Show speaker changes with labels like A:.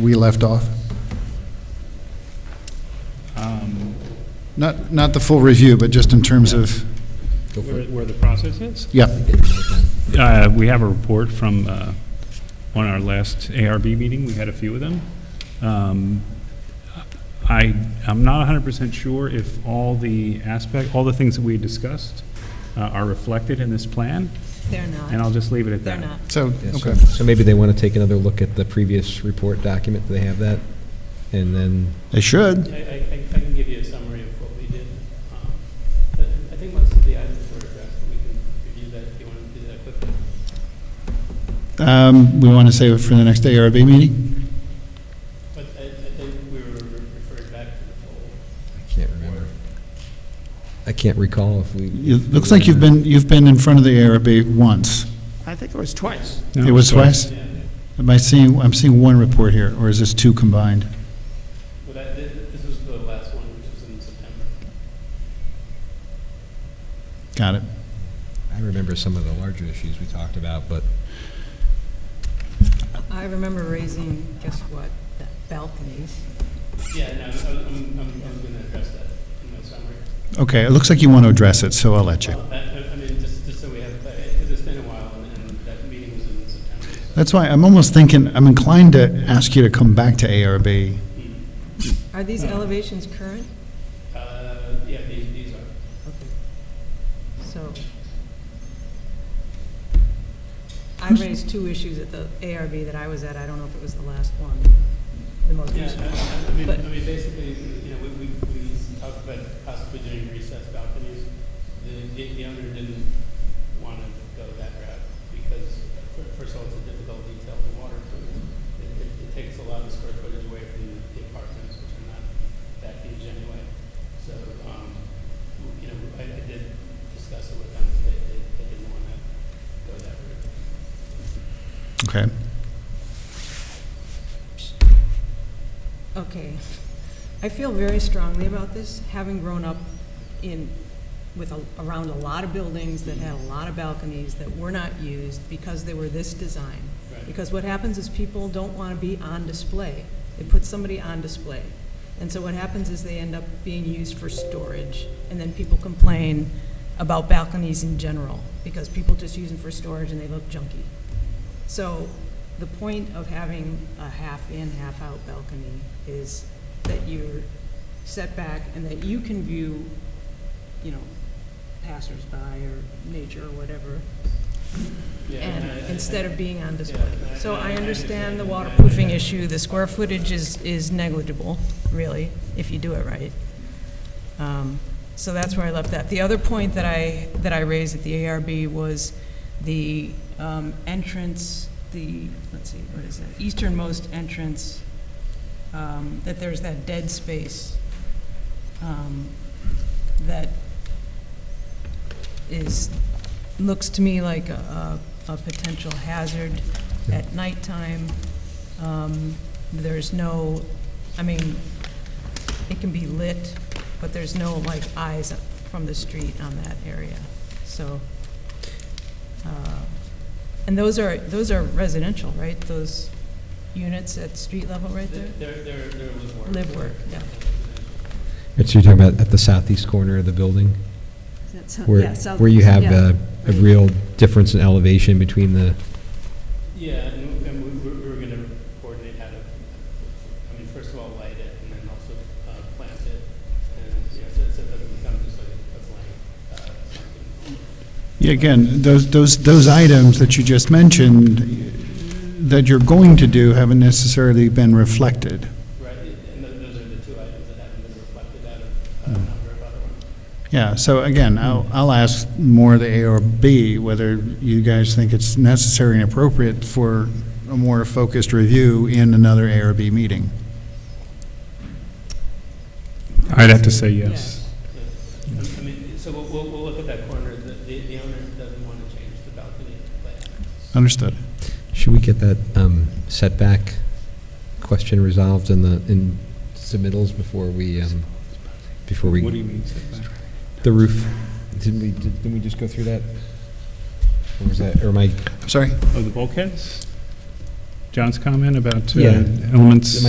A: we left off? Not, not the full review, but just in terms of,
B: Where where the process is?
A: yeah,
B: Uh, We have a report from, uh, on our last ARB meeting, we had a few of them. Um, I, I'm not 100% sure if all the aspect, all the things that we discussed uh, are reflected in this plan,
C: They're
B: and I'll
C: not.
B: just leave it at
C: They're
B: that.
C: not.
A: so,
D: Yeah, so-
A: okay.
D: So maybe they want to take another look at the previous report document, do they have that? And then,
A: They should.
E: I, I, I can give you a summary of what we did. Um, but I think most of the items were addressed, but we can review that if you want to do that quickly.
A: Um, we want to save it for the next ARB meeting?
E: But I, I think we were referred back to the full.
D: I can't remember. I can't recall if we.
A: It looks like you've been, you've been in front of the ARB once.
E: I think it was twice.
B: No,
A: It was
B: sorry.
A: twice? Am I seeing, I'm seeing one report here, or is this two combined?
E: Well, that, thi- this was the last one, which was in September.
A: Got it.
D: I remember some of the larger issues we talked about, but
C: I remember raising, guess what, the balconies.
E: Yeah, no, I'm, I'm, I'm, I'm gonna address that in my summary.
A: Okay, it looks like you want to address it, so I'll let you.
E: Well, that- I, I mean, just, just so we have, because it's been a while, and, and that meeting was in September, so.
A: That's why I'm almost thinking, I'm inclined to ask you to come back to ARB.
E: Mm.
C: Are
B: Hmm.
C: these elevations current?
E: Uh, yeah, these, these are.
C: So I raised two issues at the ARB that I was at. I don't know if it was the last one, the most
E: Yeah,
C: recent.
E: I- I mean, I
C: But-
E: mean, basically, you know, we, we, we talked about possibly doing recessed balconies. The, the the owner didn't want to go that route because, fir- first of all, it's a difficult detail to water. through. It, it, it takes a lot of square footage away from the apartments, which are not that huge anyway. So, um, you know, I, I did discuss it with them, they, they, they didn't want to go that route.
A: Okay.
C: Okay. I feel very strongly about this, having grown up in, with, a- around a lot of buildings that had a lot of balconies that were not used because they were this design.
E: Right.
C: Because what happens is people don't want to be on display. It puts somebody on display. And so what happens is they end up being used for storage, and then people complain about balconies in general, because people just use them for storage and they look junky. So the point of having a half-in, half-out balcony is that you're set back and that you can view, you know, passersby or nature or whatever,
E: Yeah, I- I-
C: and instead of being on display.
E: Yeah, I-
C: So I
E: I
C: understand the
E: understand.
C: waterproofing issue, the square footage is, is negligible, really, if you do it right. Um, So that's where I left that. The other point that I, that I raised at the ARB was the um, entrance, the, let's see, what is it, easternmost entrance, um, that there's that dead space um, that is, looks to me like a, a a potential hazard at nighttime. Um, There's no, I mean, it can be lit, but there's no like eyes from the street on that area, so. uh, And those are, those are residential, right? Those units at street level right there?
E: They're, they're, they're live work.
C: Live work, yeah.
D: it's you're talking about at the southeast corner of the building?
F: That's how-
D: Where,
F: yeah, south-
D: where you have
F: yeah.
D: a, a
F: right.
D: real difference in elevation between the,
E: Yeah, and and we we- we were going to coordinate how to, I mean, first of all, light it, and then also uh, plant it, and, you know, so so that it becomes just like a blank, uh, something.
A: Yeah, again, those, those, those items that you just mentioned, that you're going to do haven't necessarily been reflected.
E: Right, and tho- those are the two items that haven't been reflected out of uh, a number of other ones.
A: Yeah, so again, I'll, I'll ask more the ARB whether you guys think it's necessary and appropriate for a more focused review in another ARB meeting.
B: I'd have to say yes.
E: Yeah. I mean, so we'll, we'll we'll look at that corner, the, the the owner doesn't want to change the balcony layout.
A: Understood.
D: should we get that um, setback question resolved in the, in submittals before we, um, before
B: What do
D: we,
B: you mean setback?
D: the roof? Didn't we, didn't we just go through that? Or was that, or am I
A: I'm sorry?
B: Oh, the bulkheads? John's comment about uh,
D: Yeah.
B: elements?